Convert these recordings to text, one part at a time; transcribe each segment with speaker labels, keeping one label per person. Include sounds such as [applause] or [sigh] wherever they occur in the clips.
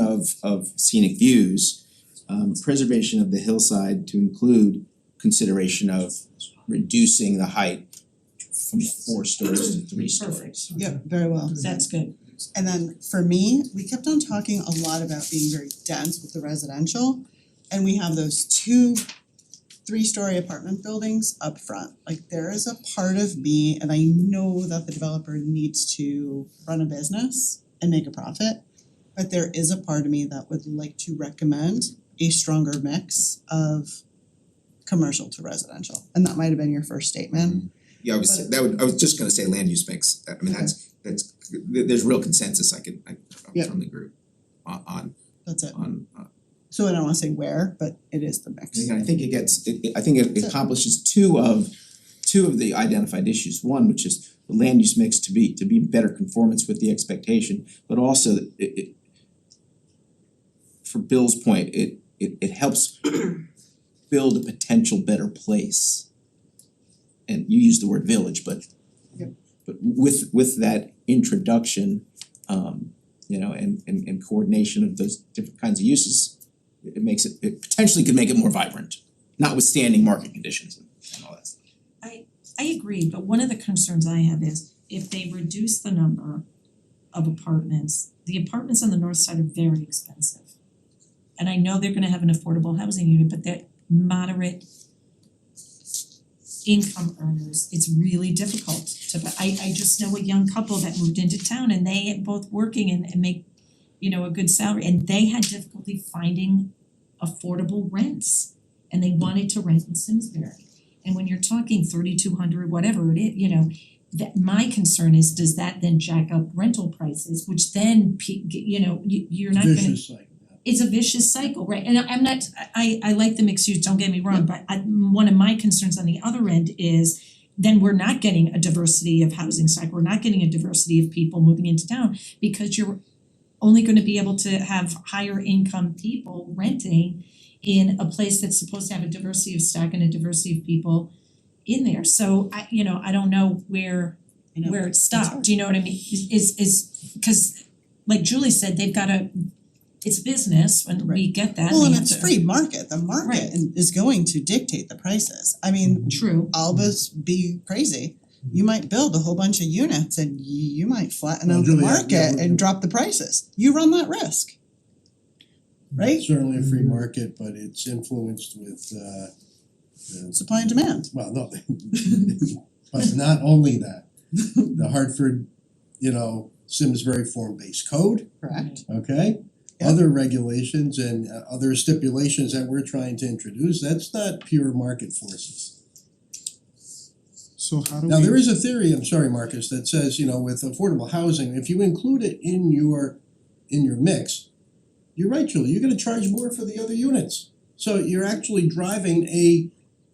Speaker 1: of of scenic views. Um preservation of the hillside to include consideration of reducing the height from four stories to three stories.
Speaker 2: Yeah, very well.
Speaker 3: That's good.
Speaker 2: And then for me, we kept on talking a lot about being very dense with the residential. And we have those two three-story apartment buildings up front. Like there is a part of me, and I know that the developer needs to run a business and make a profit. But there is a part of me that would like to recommend a stronger mix of commercial to residential. And that might have been your first statement.
Speaker 4: Yeah, I was,
Speaker 2: But-
Speaker 4: that would, I was just gonna say land use mix, I mean,
Speaker 2: Okay.
Speaker 4: that's, that's, there there's real consensus, I could, I
Speaker 2: Yeah.
Speaker 4: I'm from the group. On on
Speaker 2: That's it.
Speaker 4: on, uh,
Speaker 2: So I don't wanna say where, but it is the mix.
Speaker 1: And I think it gets, it it- I think it accomplishes two of two of the identified issues. One, which is the land use mix to be to be in better conformance with the expectation, but also it it for Bill's point, it it it helps build a potential better place. And you use the word village, but
Speaker 2: Yep.
Speaker 1: but with with that introduction, um, you know, and and and coordination of those different kinds of uses, it it makes it, it potentially could make it more vibrant, notwithstanding market conditions and and all that stuff.
Speaker 3: I agree, but one of the concerns I have is if they reduce the number of apartments, the apartments on the north side are very expensive. And I know they're gonna have an affordable housing unit, but that moderate income earners, it's really difficult to, but I I just know a young couple that moved into town and they both working and and make, you know, a good salary and they had difficulty finding affordable rents and they wanted to rent in Simsbury. And when you're talking thirty two hundred, whatever it is, you know, that my concern is, does that then jack up rental prices, which then pe- you know, you you're not gonna
Speaker 5: vicious cycle.
Speaker 3: it's a vicious cycle, right? And I- I'm not, I I like the mixed use, don't get me wrong, but I, one of my concerns on the other end is then we're not getting a diversity of housing stock, we're not getting a diversity of people moving into town because you're only gonna be able to have higher income people renting in a place that's supposed to have a diversity of stock and a diversity of people in there. So I, you know, I don't know where
Speaker 2: You know,
Speaker 3: where it
Speaker 2: it's hard.
Speaker 3: stopped, do you know what I mean? Is is is, cause like Julie said, they've gotta, it's business, when we get that,
Speaker 2: Well,
Speaker 3: we
Speaker 2: and
Speaker 3: have
Speaker 2: it's
Speaker 3: to-
Speaker 2: free market, the market
Speaker 3: Right.
Speaker 2: in- is going to dictate the prices. I mean,
Speaker 3: True,
Speaker 2: Albus be crazy. You might build a whole bunch of units and y- you might flatten
Speaker 5: Well,
Speaker 2: out the
Speaker 5: Julia, yeah,
Speaker 2: market
Speaker 5: we're-
Speaker 2: and drop the prices. You run that risk.
Speaker 5: Mm-hmm.
Speaker 2: Right?
Speaker 5: Certainly a free market, but it's influenced with uh the,
Speaker 2: Supply and demand.
Speaker 5: well, no, [laughs] but not only that, the Hartford, you know, Simsbury form-based code,
Speaker 2: Correct.
Speaker 5: okay?
Speaker 2: Yeah.
Speaker 5: Other regulations and uh, other stipulations that we're trying to introduce, that's not pure market forces.
Speaker 6: So how do we?
Speaker 5: Now,
Speaker 2: Mm-hmm.
Speaker 5: there is a theory, I'm sorry, Marcus, that says, you know, with affordable housing, if you include it in your in your mix, you're right, Julie, you're gonna charge more for the other units. So you're actually driving a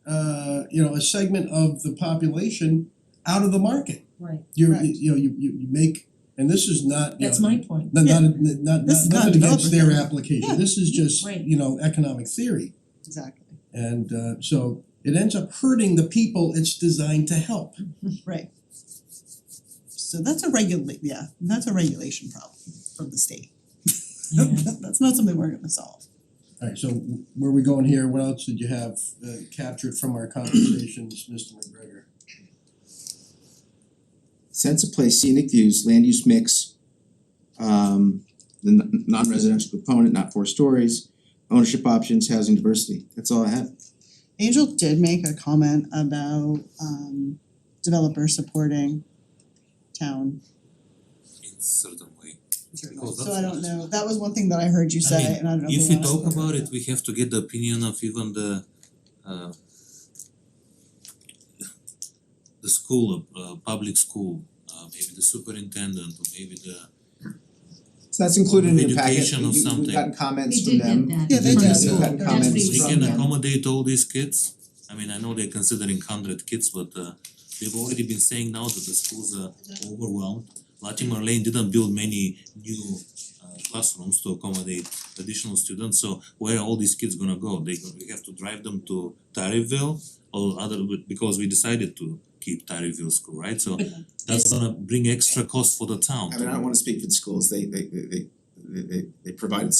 Speaker 5: uh you know, a segment of the population out of the market.
Speaker 3: right,
Speaker 5: You're,
Speaker 2: Correct.
Speaker 5: you know, you you you make, and this is not, you
Speaker 3: that's
Speaker 5: know,
Speaker 3: my point,
Speaker 5: not
Speaker 2: Yeah.
Speaker 5: not not
Speaker 2: This is
Speaker 5: not
Speaker 2: not
Speaker 5: nothing against
Speaker 2: developer
Speaker 5: their
Speaker 2: theory.
Speaker 5: application,
Speaker 2: Yeah.
Speaker 5: this is just,
Speaker 3: Right.
Speaker 5: you know, economic theory.
Speaker 2: Exactly.
Speaker 5: And uh so it ends up hurting the people it's designed to help.
Speaker 2: Right. So that's a regula- yeah, that's a regulation problem from the state.
Speaker 3: yeah.
Speaker 2: [laughs] That's not something we're gonna solve.
Speaker 5: Alright, so where are we going here? What else did you have uh captured from our conversations, Mr. McGregor?
Speaker 1: Sense of place, scenic views, land use mix, um, the n- non-residential component, not four stories, ownership options, housing diversity, that's all I have.
Speaker 2: Angel did make a comment about um developers supporting town
Speaker 7: in certain way. Because
Speaker 2: So I
Speaker 7: that's-
Speaker 2: don't know, that was one thing that I heard you
Speaker 7: I
Speaker 2: say
Speaker 7: mean,
Speaker 2: and I don't know
Speaker 7: If
Speaker 2: if we
Speaker 7: we
Speaker 2: wanna-
Speaker 7: talk about it, we have to get the opinion of even the uh the school, uh public school, uh maybe the superintendent or maybe the
Speaker 1: So that's included in the packet,
Speaker 7: Education of
Speaker 1: You- we've
Speaker 7: something. uh,
Speaker 1: gotten comments from
Speaker 3: They did
Speaker 1: them.
Speaker 3: get that.
Speaker 2: Yeah, they
Speaker 1: We've
Speaker 2: did.
Speaker 1: gotten
Speaker 2: Yeah.
Speaker 1: comments from them.
Speaker 2: That's what he
Speaker 7: we
Speaker 2: was
Speaker 7: can
Speaker 3: Yeah.
Speaker 7: accommodate all these kids. I mean, I know they're considering hundred kids, but uh they've already been saying now that the schools are overwhelmed. Latimer Lane didn't build many new uh classrooms to accommodate additional students, so where are all these kids gonna go? They go- we have to drive them to Tarryville or other, because we decided to keep Tarryville school, right? So
Speaker 3: But
Speaker 7: that's gonna bring extra cost for the town
Speaker 4: I mean, I don't wanna speak for the schools, they they they they they they- they provided